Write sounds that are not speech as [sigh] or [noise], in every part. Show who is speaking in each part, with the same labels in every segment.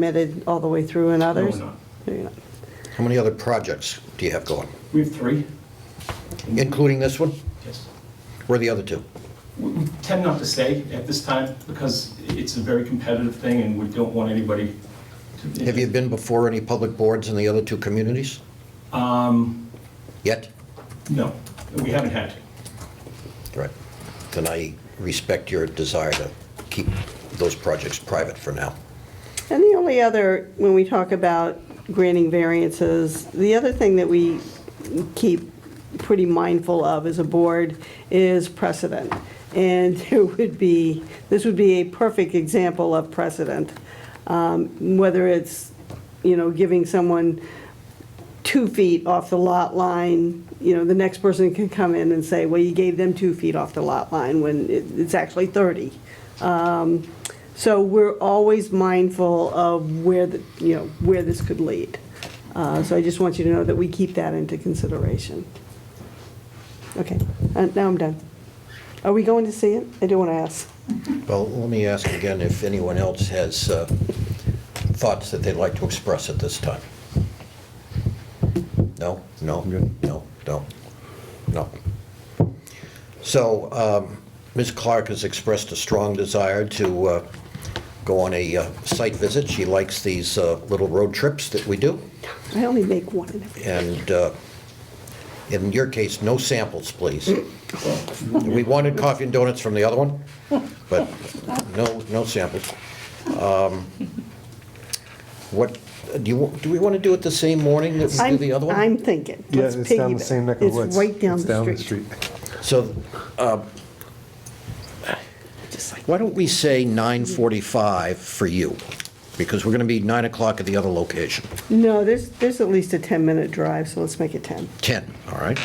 Speaker 1: permitted all the way through and others?
Speaker 2: not.
Speaker 1: No, you're not.
Speaker 3: How many other projects do you have going?
Speaker 2: We have three.
Speaker 3: Including this one?
Speaker 2: Yes.
Speaker 3: Where are the other two?
Speaker 2: We we tend not to stay at this time because it's a very competitive thing and we don't want anybody to.
Speaker 3: Have you been before any public boards in the other two communities? Yet?
Speaker 2: No, we haven't had to.
Speaker 3: Right. Then I respect your desire to keep those projects private for now.
Speaker 1: And the only other, when we talk about granting variances, the other thing that we keep pretty mindful of as a board is precedent. And [laughs] it would be, this would be a perfect example of precedent. Um, Whether it's, you know, giving someone two feet off the lot line, you know, the next person can come in and say, well, you gave them two feet off the lot line when it- it's actually 30. So we're always mindful of where, the you know, where this could lead. Uh, So I just want you to know that we keep that into consideration. Okay, and now I'm done. Are we going to see it? I do want to ask.
Speaker 3: Well, let me ask again if anyone else has uh, thoughts that they'd like to express at this time. No, no, no, no, no. So um, Ms. Clark has expressed a strong desire to uh, go on a uh, site visit. She likes these uh, little road trips that we do.
Speaker 1: I only make one in every.
Speaker 3: And uh, in your case, no samples, please. We wanted coffee and donuts from the other one, but no, no samples. Um, What, do you, do we want to do it the same morning that we do
Speaker 1: I'm-
Speaker 3: the other one?
Speaker 1: I'm thinking.
Speaker 4: Yeah,
Speaker 1: Let's
Speaker 4: it's down the
Speaker 1: piggyback.
Speaker 4: same neck of the
Speaker 1: It's
Speaker 4: woods.
Speaker 1: right down the street.
Speaker 3: So, uh, why don't we say 9:45 for you? Because we're going to be 9 o'clock at the other location.
Speaker 1: No, there's, there's at least a 10-minute drive, so let's make it 10.
Speaker 3: 10, all right?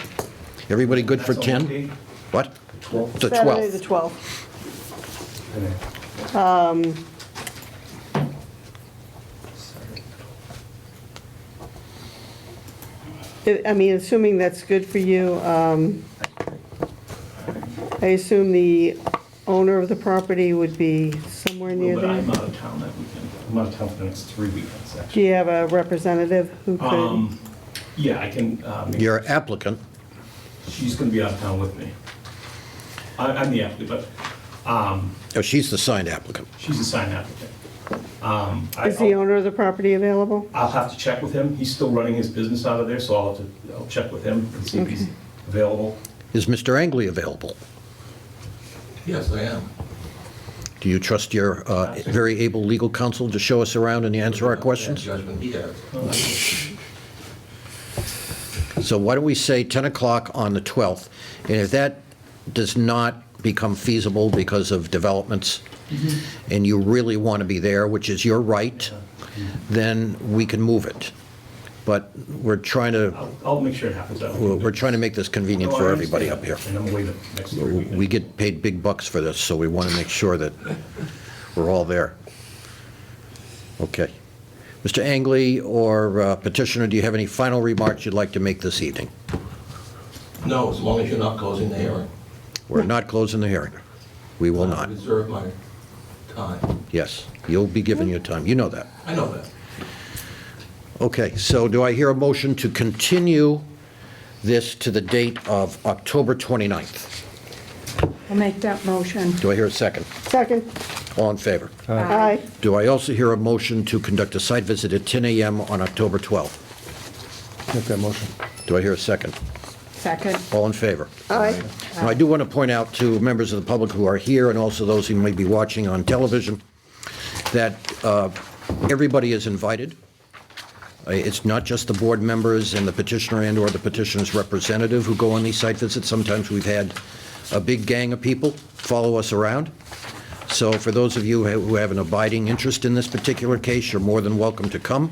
Speaker 3: Everybody good for
Speaker 2: That's a
Speaker 3: 10?
Speaker 2: holiday.
Speaker 3: What?
Speaker 2: Twelve.
Speaker 3: The
Speaker 1: Saturday, the
Speaker 3: 12th.
Speaker 1: 12th.
Speaker 2: Oh,
Speaker 1: I- I mean, assuming that's good for you, um, I assume the owner of the property would be somewhere near
Speaker 2: But
Speaker 1: there?
Speaker 2: I'm out of town that weekend. I'm out of town for the next three weekends,
Speaker 1: Do
Speaker 2: actually.
Speaker 1: you have a representative who could?
Speaker 2: Um, Yeah, I can, uh, make-
Speaker 3: Your applicant,
Speaker 2: she's going to be out of town with me. I- I'm the applicant, but um,
Speaker 3: oh, she's the signed applicant.
Speaker 2: she's a signed applicant. Um, I-
Speaker 1: Is the owner of the property available?
Speaker 2: I'll have to check with him. He's still running his business out of there, so I'll, have to- I'll check with him and see if he's available.
Speaker 3: Is Mr. Angley available?
Speaker 5: Yes, I am.
Speaker 3: Do you trust your uh, very able legal counsel to show us around and answer our questions?
Speaker 5: Judgment he has.
Speaker 3: So why don't we say 10 o'clock on the 12th? And if that does not become feasible because of developments, and you really want to be there, which is your right, then we can move it. But we're trying to,
Speaker 2: I'll, I'll make sure it happens. I
Speaker 3: we're
Speaker 2: don't-
Speaker 3: we're trying to make this convenient
Speaker 2: No, I
Speaker 3: for
Speaker 2: understand
Speaker 3: everybody up here.
Speaker 2: that, And I'm away the next three weekends.
Speaker 3: We get paid big bucks for this, so we want to make sure that we're all there. Okay. Mr. Angley or uh, petitioner, do you have any final remarks you'd like to make this evening?
Speaker 5: No, as long as you're not closing the hearing.
Speaker 3: We're not closing the hearing. We will
Speaker 5: I
Speaker 3: not.
Speaker 5: reserve my time.
Speaker 3: Yes, you'll be given your time. You know that.
Speaker 5: I know that.
Speaker 3: Okay, so do I hear a motion to continue this to the date of October 29th?
Speaker 6: I'll make that motion.
Speaker 3: Do I hear a second?
Speaker 1: Second?
Speaker 3: All in favor?
Speaker 1: Aye.
Speaker 3: Do I also hear a motion to conduct a site visit at 10 a.m. on October 12th?
Speaker 4: Make that motion.
Speaker 3: Do I hear a second?
Speaker 6: Second.
Speaker 3: All in favor?
Speaker 1: Aye.
Speaker 3: Now, I do want to point out to members of the public who are here and also those who may be watching on television that uh, everybody is invited. Uh, It's not just the board members and the petitioner and/or the petitioner's representative who go on these site visits. Sometimes we've had a big gang of people follow us around. So for those of you who have an abiding interest in this particular case, you're more than welcome to come.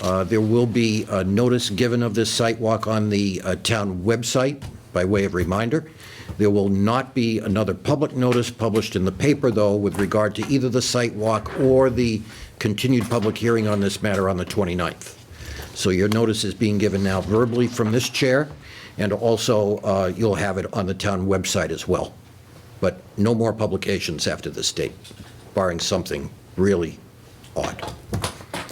Speaker 3: Uh, There will be a notice given of this site walk on the uh, town website by way of reminder. There will not be another public notice published in the paper, though, with regard to either the site walk or the continued public hearing on this matter on the 29th. So your notice is being given now verbally from this chair, and also uh, you'll have it on the town website as well. But no more publications after this date, barring something really odd.